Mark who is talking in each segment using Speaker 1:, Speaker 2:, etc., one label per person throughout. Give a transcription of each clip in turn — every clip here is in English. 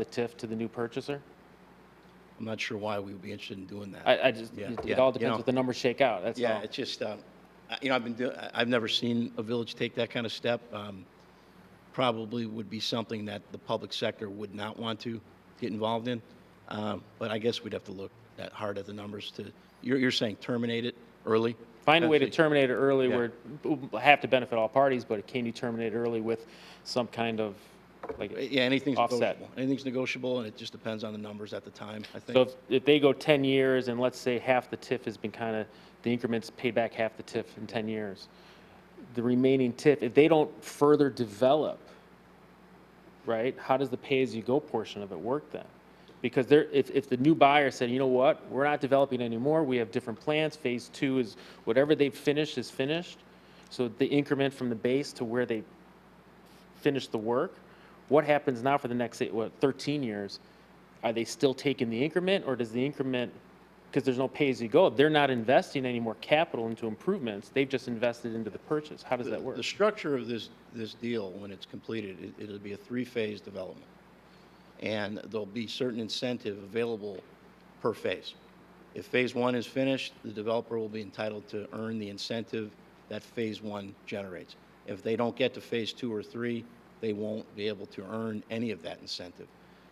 Speaker 1: the TIF to the new purchaser?
Speaker 2: I'm not sure why we would be interested in doing that.
Speaker 1: I, I just,
Speaker 2: Yeah,
Speaker 1: it
Speaker 2: yeah,
Speaker 1: it all
Speaker 2: you know.
Speaker 1: depends what the numbers shake out, that's
Speaker 2: Yeah,
Speaker 1: all.
Speaker 2: it's just, um, I- you know, I've been doing, I've never seen a village take that kind of step. Um, Probably would be something that the public sector would not want to get involved in. Um, But I guess we'd have to look that hard at the numbers to, you're, you're saying terminate it early?
Speaker 1: Find a way to
Speaker 2: potentially?
Speaker 1: terminate it early
Speaker 2: Yeah.
Speaker 1: where it have to benefit all parties, but can you terminate it early with some kind of, like,
Speaker 2: Yeah, anything's
Speaker 1: offset.
Speaker 2: negotiable. Anything's negotiable, and it just depends on the numbers at the time, I think.
Speaker 1: So if, if they go 10 years and let's say half the TIF has been kind of, the increments pay back half the TIF in 10 years, the remaining TIF, if they don't further develop, right, how does the pay-as-you-go portion of it work then? Because there, if, if the new buyer said, you know what, we're not developing anymore, we have different plans, phase two is, whatever they've finished is finished, so the increment from the base to where they finish the work. What happens now for the next, say, what, 13 years? Are they still taking the increment, or does the increment, because there's no pay-as-you-go, they're not investing any more capital into improvements, they've just invested into the purchase. How does that work?
Speaker 2: The structure of this, this deal, when it's completed, it, it'll be a three-phase development. And there'll be certain incentive available per phase. If phase one is finished, the developer will be entitled to earn the incentive that phase one generates. If they don't get to phase two or three, they won't be able to earn any of that incentive.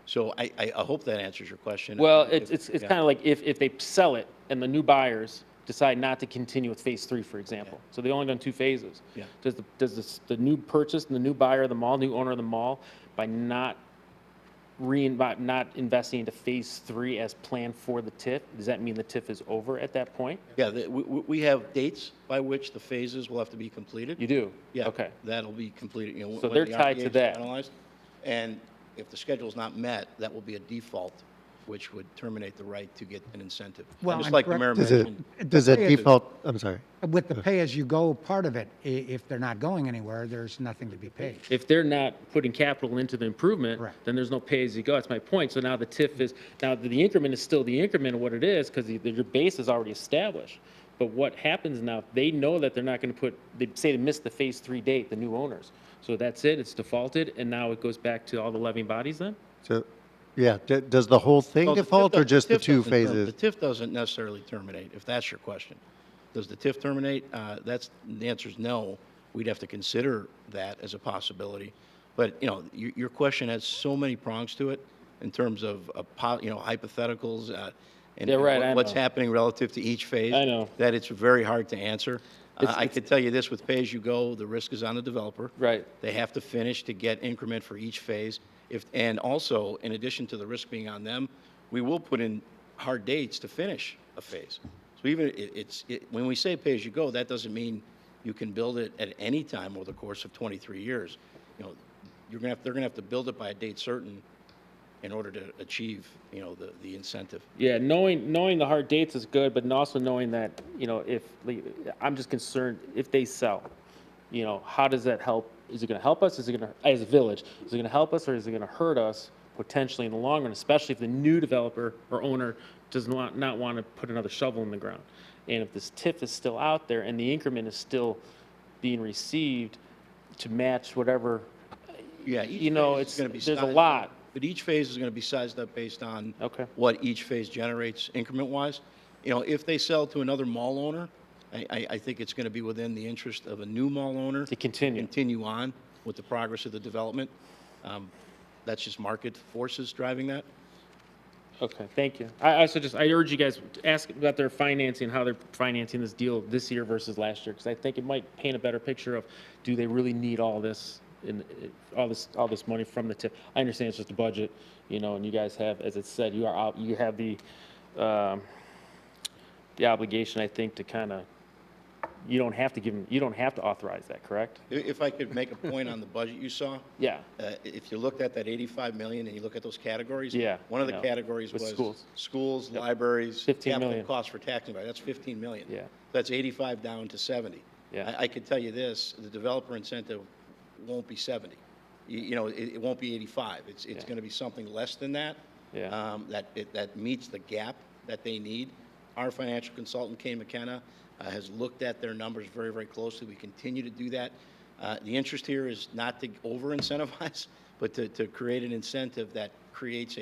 Speaker 2: So I, I, I hope that answers your question.
Speaker 1: Well,
Speaker 2: If-
Speaker 1: it's, it's, it's
Speaker 2: yeah.
Speaker 1: kind of like if, if they sell it and the new buyers decide not to continue with phase three, for example. So they only done two phases.
Speaker 2: Yeah.
Speaker 1: Does the, does this, the new purchase and the new buyer of the mall, new owner of the mall, by not rein, by not investing into phase three as planned for the TIF, does that mean the TIF is over at that point?
Speaker 2: Yeah, the- we, we we have dates by which the phases will have to be completed.
Speaker 1: You do?
Speaker 2: Yeah.
Speaker 1: Okay.
Speaker 2: That'll be completed, you know.
Speaker 1: So
Speaker 2: when
Speaker 1: they're
Speaker 2: the
Speaker 1: tied to
Speaker 2: RDA is
Speaker 1: that.
Speaker 2: finalized. And if the schedule's not met, that will be a default, which would terminate the right to get an incentive.
Speaker 3: Well,
Speaker 2: Just
Speaker 3: I'm
Speaker 2: like the mayor
Speaker 4: Does
Speaker 2: mentioned.
Speaker 4: it, does it
Speaker 3: Yeah, it is.
Speaker 4: default, I'm sorry.
Speaker 3: With the pay-as-you-go part of it, i- if they're not going anywhere, there's nothing to be paid.
Speaker 1: If they're not putting capital into the improvement,
Speaker 3: Correct.
Speaker 1: then there's no pay-as-you-go. That's my point. So now the TIF is, now the increment is still the increment of what it is because your base is already established. But what happens now, they know that they're not going to put, they say they missed the phase three date, the new owners. So that's it, it's defaulted, and now it goes back to all the levying bodies then?
Speaker 4: So, yeah, d- does the whole
Speaker 2: Well,
Speaker 4: thing
Speaker 2: the TIF
Speaker 4: default or
Speaker 2: doesn't-
Speaker 4: just the
Speaker 2: TIF
Speaker 4: two
Speaker 2: doesn't term-
Speaker 4: phases?
Speaker 2: The TIF doesn't necessarily terminate, if that's your question. Does the TIF terminate? Uh, That's, the answer is no. We'd have to consider that as a possibility. But, you know, your, your question has so many prongs to it in terms of, a po- you know, hypotheticals. uh, and
Speaker 1: Yeah,
Speaker 2: and
Speaker 1: right,
Speaker 2: what-
Speaker 1: I
Speaker 2: What's
Speaker 1: know.
Speaker 2: happening relative to each phase.
Speaker 1: I know.
Speaker 2: That it's very hard to answer. Uh,
Speaker 1: It's-
Speaker 2: I could tell you this, with pay-as-you-go, the risk is on the developer.
Speaker 1: Right.
Speaker 2: They have to finish to get increment for each phase. If, and also, in addition to the risk being on them, we will put in hard dates to finish a phase. So even, it, it's, it, when we say pay-as-you-go, that doesn't mean you can build it at any time over the course of 23 years. You know, you're gonna have, they're gonna have to build it by a date certain in order to achieve, you know, the, the incentive.
Speaker 1: Yeah, knowing, knowing the hard dates is good, but also knowing that, you know, if, I'm just concerned, if they sell, you know, how does that help? Is it gonna help us? Is it gonna, as a village, is it gonna help us or is it gonna hurt us potentially in the long run? Especially if the new developer or owner does not, not wanna put another shovel in the ground. And if this TIF is still out there and the increment is still being received to match whatever,
Speaker 2: Yeah, each
Speaker 1: You know,
Speaker 2: phase
Speaker 1: it's-
Speaker 2: is gonna be
Speaker 1: there's a
Speaker 2: sized
Speaker 1: lot.
Speaker 2: up, But each phase is going to be sized up based on
Speaker 1: Okay.
Speaker 2: what each phase generates increment-wise. You know, if they sell to another mall owner, I, I, I think it's going to be within the interest of a new mall owner
Speaker 1: To continue.
Speaker 2: continue on with the progress of the development. Um, that's just market forces driving that.
Speaker 1: Okay, thank you. I, I suggest, I urge you guys to ask about their financing, how they're financing this deal this year versus last year, because I think it might paint a better picture of, do they really need all this, in, all this, all this money from the tip? I understand it's just a budget, you know, and you guys have, as it said, you are out, you have the, um, the obligation, I think, to kind of, you don't have to give them, you don't have to authorize that, correct?
Speaker 2: I- If I could make a point on the budget you saw,
Speaker 1: Yeah,
Speaker 2: uh, if you looked at that 85 million and you look at those categories.
Speaker 1: Yeah,
Speaker 2: One of the
Speaker 1: I know.
Speaker 2: categories
Speaker 1: With
Speaker 2: was.
Speaker 1: schools.
Speaker 2: Schools, libraries.
Speaker 1: 15
Speaker 2: Capital
Speaker 1: million.
Speaker 2: costs for taxing, right, that's 15 million.
Speaker 1: Yeah.
Speaker 2: That's 85 down to 70.
Speaker 1: Yeah.
Speaker 2: I, I could tell you this, the developer incentive won't be 70. You, you know, it, it won't be 85. It's, it's
Speaker 1: Yeah.
Speaker 2: going to be something less than that.
Speaker 1: Yeah.
Speaker 2: um, That, it- that meets the gap that they need. Our financial consultant, Kay McKenna, uh, has looked at their numbers very, very closely. We continue to do that. Uh, The interest here is not to over-incentivize, but to, to create an incentive that creates